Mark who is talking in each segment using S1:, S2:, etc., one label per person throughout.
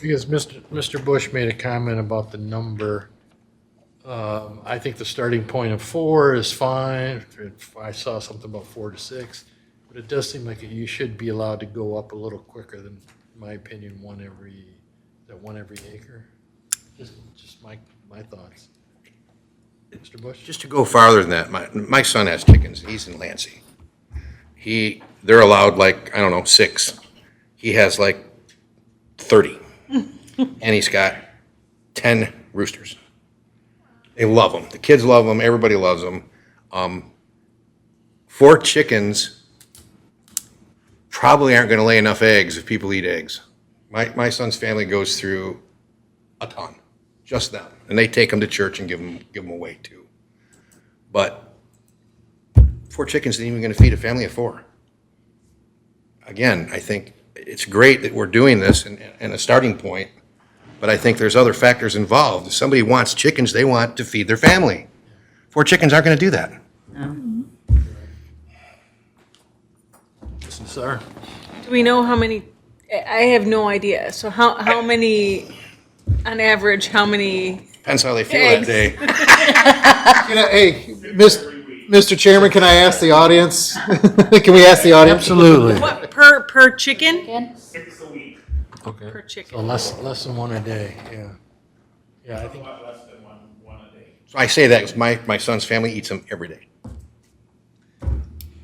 S1: Because Mr. Mr. Bush made a comment about the number. Um, I think the starting point of four is fine. I saw something about four to six. But it does seem like you should be allowed to go up a little quicker than, in my opinion, one every, that one every acre. Just, just my, my thoughts. Mr. Bush?
S2: Just to go farther than that, my, my son has chickens, he's in Lansing. He, they're allowed like, I don't know, six. He has like thirty. And he's got ten roosters. They love them, the kids love them, everybody loves them. Um, four chickens probably aren't gonna lay enough eggs if people eat eggs. My, my son's family goes through a ton, just them. And they take them to church and give them, give them away too. But four chickens isn't even going to feed a family of four. Again, I think it's great that we're doing this and, and a starting point, but I think there's other factors involved. If somebody wants chickens, they want to feed their family. Four chickens aren't going to do that.
S1: Mr. Sarah?
S3: Do we know how many, I I have no idea. So how, how many, on average, how many?
S2: Depends how they feel that
S3: Eggs.
S2: day.
S4: Can I, hey, mis- Mr. Chairman, can I ask the audience? Can we ask the audience?
S1: Absolutely.
S3: What, per, per chicken?
S5: Six a week,
S1: Okay.
S3: Per
S1: So
S3: chicken.
S1: less, less than one a day, yeah. Yeah, I
S5: a
S1: think,
S5: lot less than one, one a day.
S2: So I say that because my, my son's family eats them every day.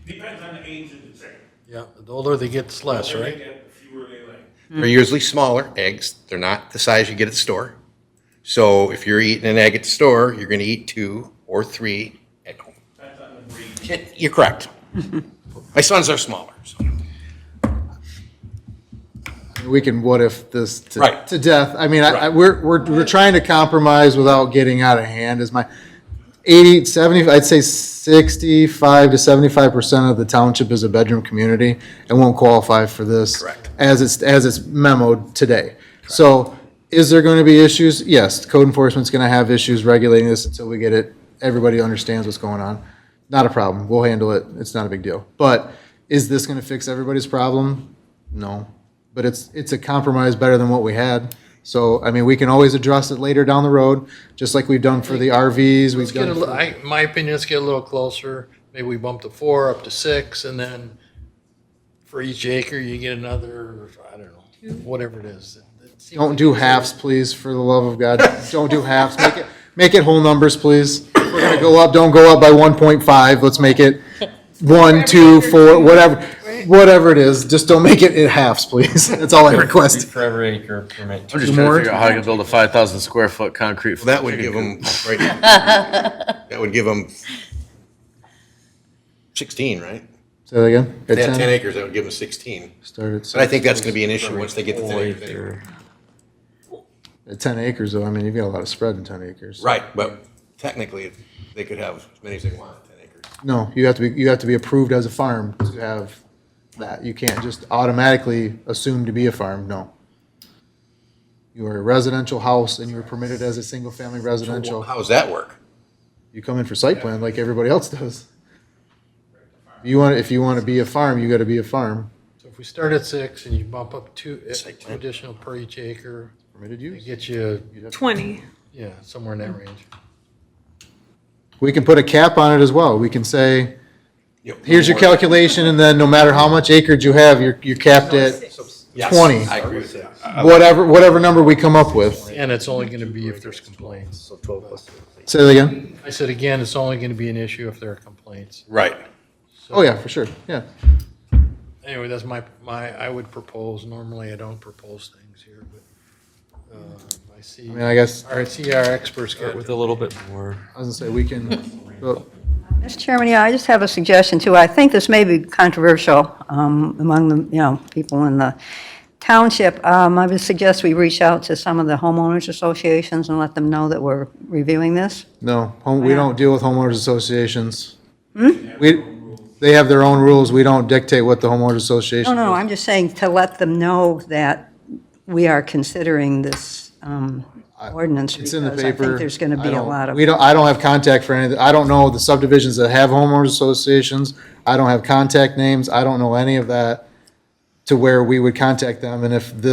S5: Depends on the age of the chicken.
S1: yeah, the older they get, it's less,
S5: The older they
S1: right?
S5: get, the Fewer they lay.
S2: They're usually smaller eggs. They're not the size you get at the store. So if you're eating an egg at the store, you're going to eat two or three at home.
S5: Depends on the breed.
S2: It- You're correct. My sons are smaller. So.
S4: We can what if this to,
S2: Right.
S4: to death. I mean, I, I,
S2: Right.
S4: we're, we're, we're trying to compromise without getting out of hand is my 80, 70, I'd say 65 to 75% of the township is a bedroom community and won't qualify for this.
S2: Correct.
S4: As it's, as it's memoed today. So is there going to be issues? Yes, code enforcement's going to have issues regulating this until we get it. Everybody understands what's going on. Not a problem. We'll handle it. It's not a big deal. But is this going to fix everybody's problem? No, but it's, it's a compromise better than what we had. So, I mean, we can always address it later down the road, just like we've done for the RVs, we've
S1: Let's get a,
S4: done.
S1: li-
S4: for-
S1: I, my opinion, let's get a little closer. Maybe we bump the four up to six and then for each acre, you get another, I don't know, whatever it is. It seems
S4: Don't
S1: like
S4: do
S1: it's a-
S4: halves, please, for the love of God. Don't do halves. Make it, make it whole numbers, please. If We're gonna go up, don't go up by one point five. Let's make it one, two, four, whatever, whatever it is. Just don't make it in halves, please. That's all I request.
S6: For every acre permit.
S7: I'm just trying to figure out how I can build a five thousand square foot concrete.
S2: Well, that would
S7: chicken
S2: give
S7: coop.
S2: them, right, that would give them 16, right?
S4: Say that again.
S2: If
S4: At
S2: they had 10
S4: ten,
S2: acres, that would give them 16.
S4: start at
S2: But I
S4: six.
S2: think that's going to be an issue once they get to 10 acres.
S4: At ten acres though, I mean, you've got a lot of spread in ten acres.
S2: Right, but technically, they could have as many as they want at 10 acres.
S4: No, you have to be, you have to be approved as a farm to have that. You can't just automatically assume to be a farm, no. You are a residential house and you're permitted as a single-family residential.
S2: How does that work?
S4: You come in for site plan like everybody else does. You want, if you want to be a farm, you gotta be a farm,
S1: So if we start at six and you bump up two, eh,
S2: Site
S1: two
S2: plan.
S1: additional per each acre,
S4: permitted
S1: it
S4: use.
S1: gets you,
S3: Twenty.
S1: yeah, somewhere in that range.
S4: We can put a cap on it as well. We can say,
S2: Yep.
S4: here's your calculation and then no matter how much acreage you have, you're, you're capped at
S2: Yes,
S4: 20.
S2: I agree with that.
S4: whatever, whatever number we come up with.
S1: And it's only gonna be if there's complaints.
S4: Say that again.
S1: I said again, it's only gonna be an issue if there are complaints.
S2: Right.
S4: Oh yeah, for sure, yeah.
S1: Anyway, that's my, my, I would propose, normally I don't propose things here, but, uh, I see,
S4: I mean, I guess,
S1: our, I see our experts get with
S6: With a little bit more.
S4: I was gonna say, we can, well,
S8: Mr. Chairman, yeah, I just have a suggestion too. I think this may be controversial um, among the, you know, people in the township. Um, I would suggest we reach out to some of the homeowners associations and let them know that we're reviewing this.
S4: No, home, we
S8: not?
S4: don't deal with homeowners associations. We, they have their own rules. We don't dictate what the homeowners
S8: No,
S4: association.
S8: no,
S4: does.
S8: I'm just saying to let them know that we are considering this um, ordinance
S4: It's
S8: because
S4: in the
S8: I
S4: paper.
S8: think there's going to
S4: I
S8: be a
S4: don't-
S8: lot of.
S4: We don't, I don't have contact for any, I don't know the subdivisions that have homeowners associations. I don't have contact names. I don't know any of that to where we would contact them. And if this